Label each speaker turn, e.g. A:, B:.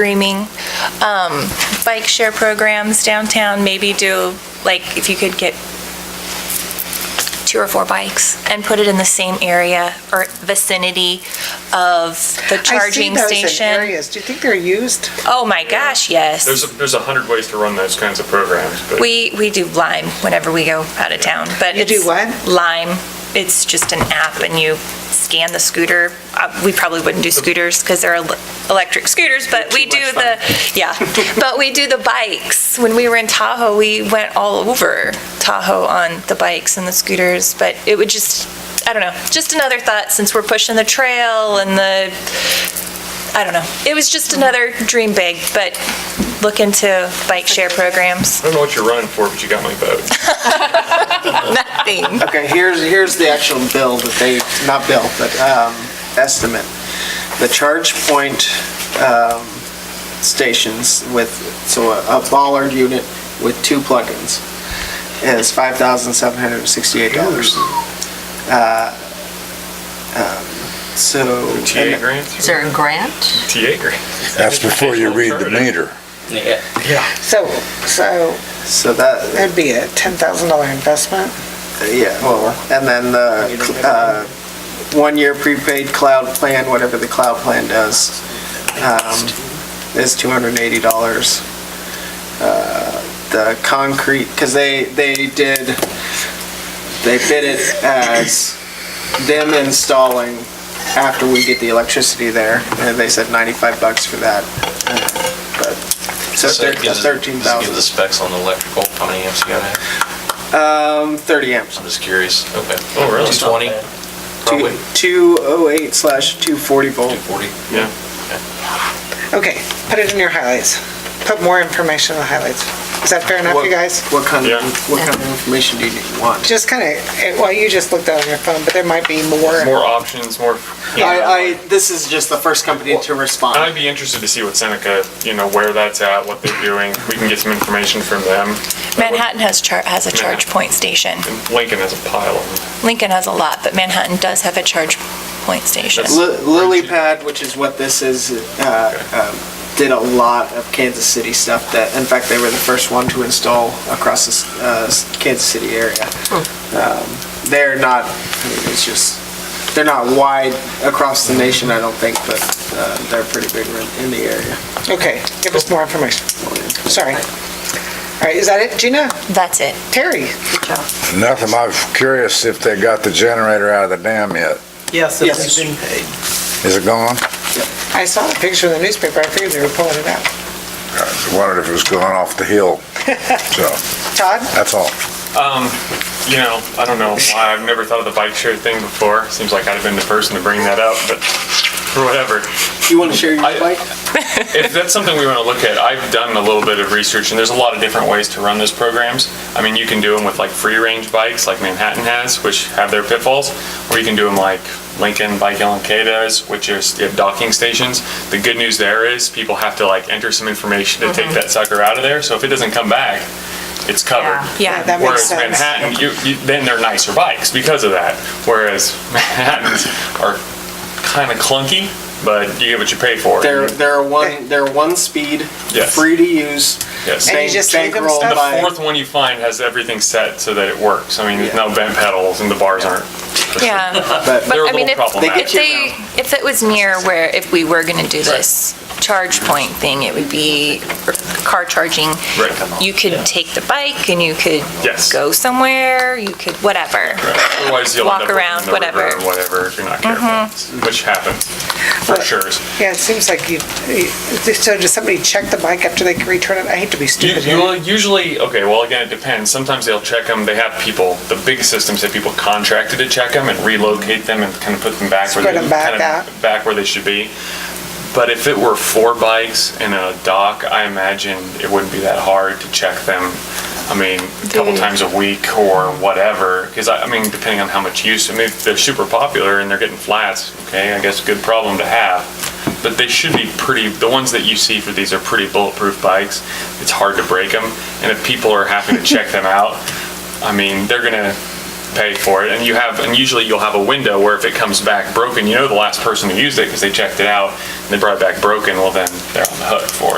A: dreaming, um, bike share programs downtown, maybe do, like, if you could get two or four bikes and put it in the same area or vicinity of the charging
B: I see those in
A: station.
B: areas. Do you think they're used?
A: Oh, my gosh, yes.
C: There's, a- there's a hundred ways to run those kinds of programs, but
A: We, we do Lime whenever we go out of town, but
B: You do
A: it's-
B: what?
A: Lime. It's just an app and you scan the scooter. Uh, We probably wouldn't do scooters because they're el- electric scooters, but we
C: Too
A: do
C: much
A: the, yeah. But we do the bikes. When we were in Tahoe, we went all over Tahoe on the bikes and the scooters, but it would just, I don't know, just another thought since we're pushing the trail and the, I don't know. It was just another dream big, but look into bike share programs.
C: I don't know what you're running for, but you got my vote.
A: Nothing.
D: Okay, here's, here's the actual bill that they, not bill, but um, estimate. The charge point um, stations with, so a a bollard unit with two plugins is $5,768. Uh, um, So.
C: TA grants?
E: Is there a grant?
C: TA grant.
F: That's before you read the meter.
B: So, so
D: So that,
B: that'd be a $10,000 investment.
D: Yeah, well, and then the uh, one-year prepaid cloud plan, whatever the cloud plan does, um, is $280. Uh, The concrete, because they, they did, they bid it as them installing after we get the electricity there, and they said 95 bucks for that. But, so
G: So it gives us- Does it give the
D: 13,000,
G: specs on the electrical, how many amps you gotta have?
D: um, 30 amps.
G: I'm just curious. Okay.
C: Oh, really?
G: 220, probably,
D: 208 slash 240 volt.
G: 240?
C: Yeah.
B: Okay, put it in your highlights. Put more information in the highlights. Is that fair enough,
D: What-
B: you guys?
D: What kind
C: Yeah.
D: of, what kind of information do you need- want?
B: Just kind of, well, you just looked out on your phone, but there might be more.
C: More options, more.
D: I, I, this is just the first company to
C: And
D: respond.
C: I'd be interested to see what Seneca, you know, where that's at, what they're doing. We can get some information from them.
A: Manhattan has char, has a charge point station.
C: Lincoln has a pile of them.
A: Lincoln has a lot, but Manhattan does have a charge point station.
D: Li- Lily Pad, which is what this is, uh, um, did a lot of Kansas City stuff that, in fact, they were the first one to install across the s- uh, s- Kansas City area.
C: Oh.
D: Um, They're not, I mean, it's just, they're not wide across the nation, I don't think, but uh, they're pretty big in- in the area.
B: Okay, give us more information. Sorry. All right, is that it, Gina?
A: That's it.
B: Terry?
F: Nothing, I'm curious if they got the generator out of the dam yet.
H: Yes,
D: Yes.
H: it's been paid.
F: Is it gone?
B: I saw a picture in the newspaper. I figured they were pulling it out.
F: I wondered if it was going off the hill. So,
B: Todd?
F: that's all.
C: Um, you know, I don't know why. I've never thought of the bike share thing before. Seems like I'd have been the person to bring that up, but whatever.
D: You want to share your
C: I-
D: bike?
C: if that's something we want to look at, I've done a little bit of research, and there's a lot of different ways to run those programs. I mean, you can do them with like free-range bikes, like Manhattan has, which have their pitfalls, or you can do them like Lincoln Bike LMK does, which is you have docking stations. The good news there is people have to like enter some information to take that sucker out of there. So if it doesn't come back, it's covered.
B: Yeah, that makes
C: Whereas
B: sense.
C: Manhattan, you, you, then they're nicer bikes because of that. Whereas Manhattans are kind of clunky, but you get what you pay for.
D: They're, they're
B: Okay.
D: one, they're one speed,
C: Yes.
D: free to use.
C: Yes.
B: And you
D: bank-
B: just leave them
D: bankrolled
B: stuff?
D: by-
C: The fourth one you find has everything set so that it works. I mean, there's
D: Yeah.
C: no bent pedals and the bars aren't.
A: Yeah.
D: But
A: But
C: They're a
A: I mean,
C: little
A: if,
C: problematic.
A: if they, if it was near where, if we were gonna do this charge point thing, it would be car charging.
C: Right.
A: You could take the bike and you could
C: Yes.
A: go somewhere, you could, whatever.
C: Otherwise, you'll
A: Walk
C: end up
A: around,
C: in the river
A: whatever. Mm-hmm.
C: or whatever if you're not careful, which happens for
B: Well,
C: sure.
B: Yeah, it seems like you, you- so does somebody check the bike after they can return it? I hate to be
C: You,
B: stupid.
C: you will usually okay. Well, again, it depends. Sometimes they'll check them. They have people. The big systems have people contracted to check them and relocate them and kind of put them back where
B: Spread
C: they
B: 'em back
C: kind
B: out.
C: of back where they should be. But if it were four bikes in a dock, I imagine it wouldn't be that hard to check them. I mean, a couple times a week or whatever, because I, I mean, depending on how much use, I mean, if they're super popular and they're getting flats, okay, I guess good problem to have. But they should be pretty, the ones that you see for these are pretty bulletproof bikes. It's hard to break them, and if people are having to check them out, I mean, they're gonna, pay for it. And you have, and usually you'll have a window where if it comes back broken, you know the last person who used it because they checked it out and they brought it back broken, well then they're on the hook for it.